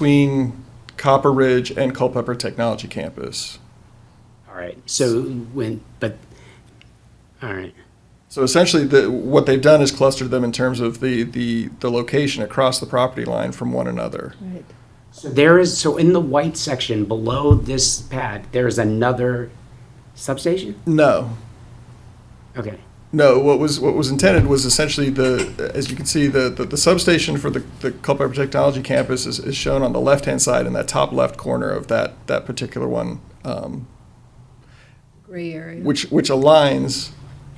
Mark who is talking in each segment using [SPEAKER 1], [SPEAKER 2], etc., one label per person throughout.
[SPEAKER 1] between Copper Ridge and Culpeper Technology Campus.
[SPEAKER 2] All right, so when, but, all right,
[SPEAKER 1] So essentially, the, what they've done is clustered them in terms of the, the, the location across the property line from one another.
[SPEAKER 3] Right,
[SPEAKER 2] so there is, so in the white section below this pad, there is another substation?
[SPEAKER 1] No,
[SPEAKER 2] Okay,
[SPEAKER 1] no. What was what was intended was essentially the, as you can see, the the, the substation for the, the Culpeper Technology Campus is, is shown on the left hand side in that top left corner of that that particular one, um,
[SPEAKER 3] gray area.
[SPEAKER 1] which which aligns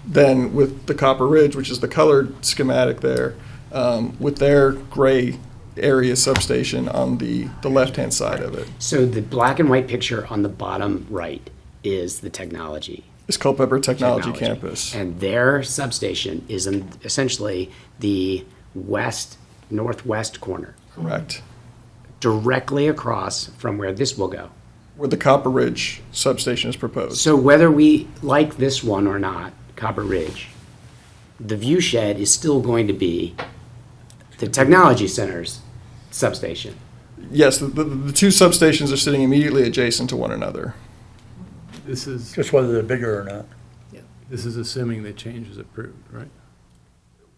[SPEAKER 1] then with the Copper Ridge, which is the colored schematic there, um, with their gray area substation on the, the left-hand side of it
[SPEAKER 2] so the black and white picture on the bottom right is the technology.
[SPEAKER 1] is Culpeper Technology, Campus.
[SPEAKER 2] And their substation is in essentially the west, northwest corner,
[SPEAKER 1] Correct.
[SPEAKER 2] directly across from where this will go.
[SPEAKER 1] Where the Copper Ridge substation is proposed.
[SPEAKER 2] So whether we like this one or not, Copper Ridge, the view shed is still going to be the technology center's substation.
[SPEAKER 1] Yes, the, the, the two substations are sitting immediately adjacent to one another.
[SPEAKER 4] This is,
[SPEAKER 5] Just whether they're bigger or not.
[SPEAKER 4] this is assuming the change is approved, right?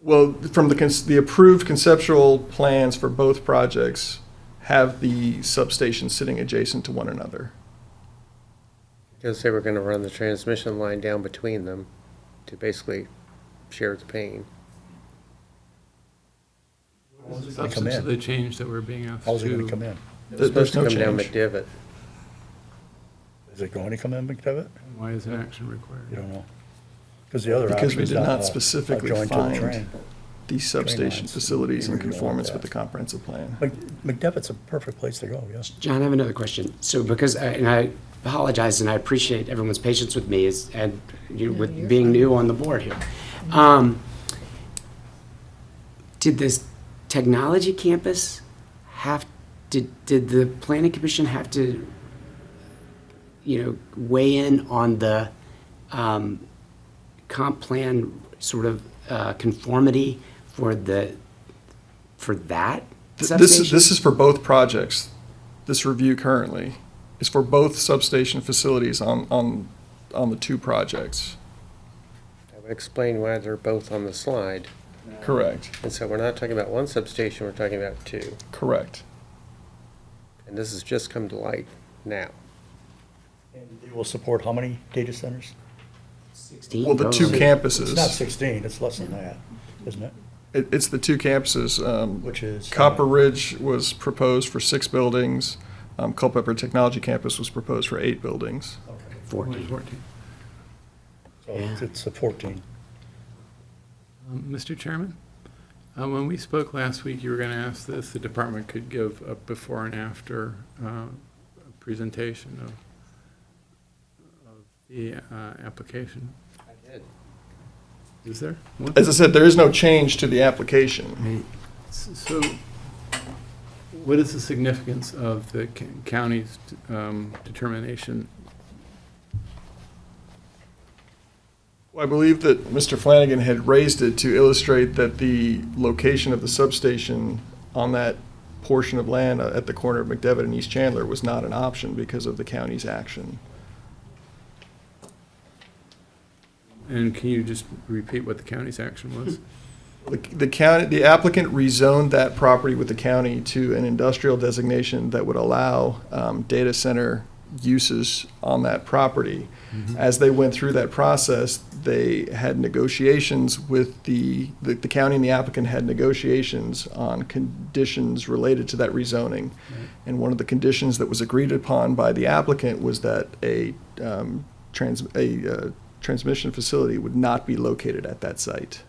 [SPEAKER 1] Well, from the, cons- the approved conceptual plans for both projects have the substations sitting adjacent to one another.
[SPEAKER 6] Because they were gonna run the transmission line down between them to basically share the pain.
[SPEAKER 4] The
[SPEAKER 5] gonna come
[SPEAKER 4] substance of
[SPEAKER 5] in?
[SPEAKER 4] the change that we're being asked
[SPEAKER 5] How's it gonna come
[SPEAKER 4] to.
[SPEAKER 5] in?
[SPEAKER 6] It
[SPEAKER 1] There-
[SPEAKER 6] was supposed to
[SPEAKER 1] there's
[SPEAKER 6] come
[SPEAKER 1] no
[SPEAKER 6] down
[SPEAKER 1] change.
[SPEAKER 6] McDivitt.
[SPEAKER 5] Is it going to come in, McDevitt?
[SPEAKER 4] Why is an action
[SPEAKER 5] You
[SPEAKER 4] required?
[SPEAKER 5] don't know. Because the other
[SPEAKER 1] Because
[SPEAKER 5] option
[SPEAKER 1] we
[SPEAKER 5] is
[SPEAKER 1] did
[SPEAKER 5] not
[SPEAKER 1] not
[SPEAKER 5] a- a
[SPEAKER 1] specifically
[SPEAKER 5] joint to the
[SPEAKER 1] find-
[SPEAKER 5] train.
[SPEAKER 1] These substation
[SPEAKER 5] lines.
[SPEAKER 1] facilities in
[SPEAKER 5] Maybe we don't
[SPEAKER 1] conformance with
[SPEAKER 5] want
[SPEAKER 1] the
[SPEAKER 5] that.
[SPEAKER 1] comprehensive plan.
[SPEAKER 5] Mc- McDevitt's a perfect place to go, yes.
[SPEAKER 2] John, I have another question. So because, I- and I apologize, and I appreciate everyone's patience with me is, and you, with being new on the board here. Um, Did this technology campus have, did, did the planning commission have to, you know, weigh in on the um, comp plan sort of uh, conformity for the, for that
[SPEAKER 1] Th- This, is-
[SPEAKER 2] substation?
[SPEAKER 1] this is for both projects. This review currently is for both substation facilities on, on, on the two projects.
[SPEAKER 6] I would explain why they're both on the slide.
[SPEAKER 1] Correct,
[SPEAKER 6] And so we're not talking about one substation, we're talking about two.
[SPEAKER 1] correct.
[SPEAKER 6] And this has just come to light now.
[SPEAKER 5] And It will support how many data centers?
[SPEAKER 2] 16
[SPEAKER 1] Well, the two
[SPEAKER 2] total.
[SPEAKER 5] It's not
[SPEAKER 1] campuses,
[SPEAKER 5] sixteen, it's less than that, isn't it?
[SPEAKER 1] it, it's the two campuses. um,
[SPEAKER 5] Which is. uh,
[SPEAKER 1] Copper Ridge was proposed for six buildings. um, Culpeper Technology Campus was proposed for eight buildings.
[SPEAKER 5] okay.
[SPEAKER 2] 14.
[SPEAKER 4] Fourteen.
[SPEAKER 5] So it's- it's a fourteen.
[SPEAKER 4] Um, Mr. Chairman, uh, when we spoke last week, you were going to ask this, the department could give a before and after uh, presentation of of the uh, application.
[SPEAKER 6] I did.
[SPEAKER 4] Is there? one?
[SPEAKER 1] As I said, there is no change to the application.
[SPEAKER 4] So what is the significance of the c- county's um, determination?
[SPEAKER 1] I believe that Mr. Flanagan had raised it to illustrate that the location of the substation on that portion of land uh, at the corner of McDevitt and East Chandler was not an option because of the county's action.
[SPEAKER 4] And can you just repeat what the county's action was?
[SPEAKER 1] The- The county, the applicant rezoned that property with the county to an industrial designation that would allow um, data center uses on that property. As they went through that process, they had negotiations with the, the the county and the applicant had negotiations on conditions related to that rezoning. And one of the conditions that was agreed upon by the applicant was that a um, trans, a uh, transmission facility would not be located at that site.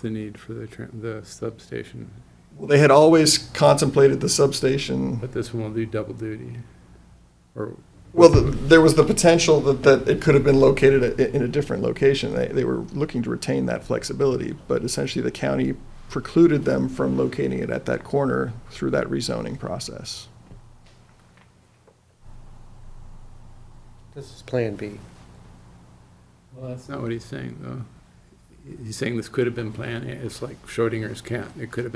[SPEAKER 4] The need for the tran- the substation,
[SPEAKER 1] Well, they had always contemplated the substation.
[SPEAKER 4] but this one will do double duty? Or,
[SPEAKER 1] Well, the, there was the potential that, that it could have been located i- in a different location. They, they were looking to retain that flexibility, but essentially the county precluded them from locating it at that corner through that rezoning process.
[SPEAKER 6] This is Plan B.
[SPEAKER 4] well, that's not what he's saying, though. he's saying this could have been planned, it's like Schrodinger's cat, it could have been.